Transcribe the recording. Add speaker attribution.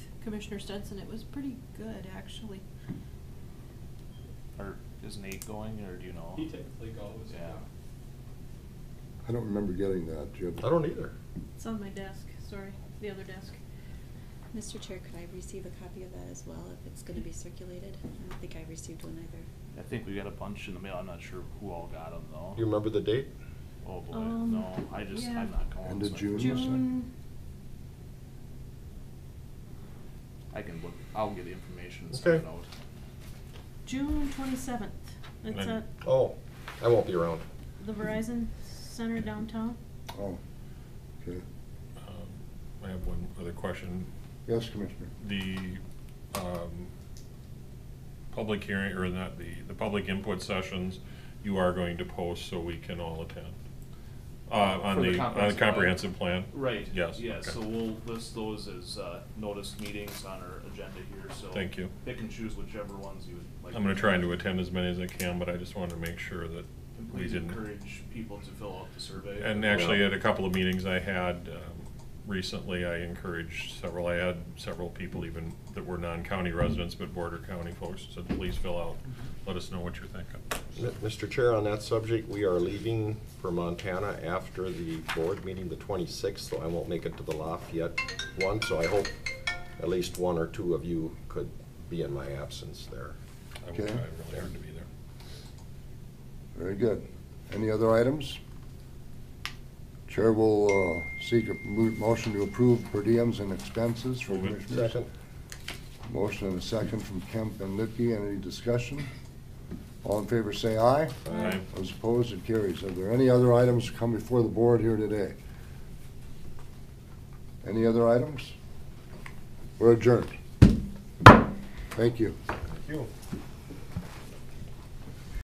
Speaker 1: Commissioner Stetson, it was pretty good, actually.
Speaker 2: Or is Nate going, or do you know?
Speaker 3: He typically goes,
Speaker 2: Yeah.
Speaker 3: yeah.
Speaker 4: I don't remember getting that, Jim.
Speaker 5: I don't either.
Speaker 1: It's on my desk, sorry, the other desk.
Speaker 6: Mr. Chair, could I receive a copy of that as well if it's gonna be circulated? I don't think I received one either.
Speaker 2: I think we got a bunch in the mail, I'm not sure who all got them though.
Speaker 5: Do you remember the date?
Speaker 2: Oh boy,
Speaker 1: Um,
Speaker 2: no, I just,
Speaker 1: yeah.
Speaker 2: I'm not going.
Speaker 4: End of
Speaker 2: so I-
Speaker 4: June was it?
Speaker 1: June,
Speaker 2: I can look, I'll get the information and send it
Speaker 5: Okay.
Speaker 2: out.
Speaker 1: June twenty-seventh, it's
Speaker 7: When?
Speaker 1: at
Speaker 5: Oh, I won't be around.
Speaker 1: the Verizon Center downtown.
Speaker 4: Oh, okay.
Speaker 7: Um, I have one other question.
Speaker 4: Yes, Commissioner.
Speaker 7: The um, public hearing, or not, the, the public input sessions, you are going to post so we can all attend? Uh, On
Speaker 2: For
Speaker 7: the, on the comprehensive plan?
Speaker 2: Right.
Speaker 7: Yes.
Speaker 2: Yeah,
Speaker 7: okay.
Speaker 2: so we'll list those as, uh, notice meetings on our agenda here, so.
Speaker 7: Thank you.
Speaker 2: Pick and choose whichever ones you would like.
Speaker 7: I'm gonna try and to attend as many as I can, but I just wanted to make sure that
Speaker 2: And
Speaker 7: we
Speaker 2: please
Speaker 7: didn't.
Speaker 2: encourage people to fill out the survey.
Speaker 7: And actually, at a couple of meetings I had um, recently, I encouraged several, I had several people even that were non-county residents, but border county folks, said, please fill out,
Speaker 2: Mm-hmm.
Speaker 7: let us know what you're
Speaker 5: M-
Speaker 7: thinking.
Speaker 5: Mr. Chair, on that subject, we are leaving for Montana after the board meeting the 26th, so I won't make it to the Lafayette one, so I hope at least one or two of you could be in my absence there.
Speaker 7: I will try
Speaker 4: Okay.
Speaker 7: really hard to be there.
Speaker 4: Very good. Any other items? Chair will uh, seek a mo- motion to approve per diems and expenses for
Speaker 7: Move it.
Speaker 4: commissioners.
Speaker 5: Second?
Speaker 4: Motion and a second from Kemp and Lippy. Any discussion? All in favor, say aye.
Speaker 7: Aye.
Speaker 4: Those opposed, it carries. Are there any other items to come before the board here today? Any other items? We're adjourned. Thank you.
Speaker 5: Thank you.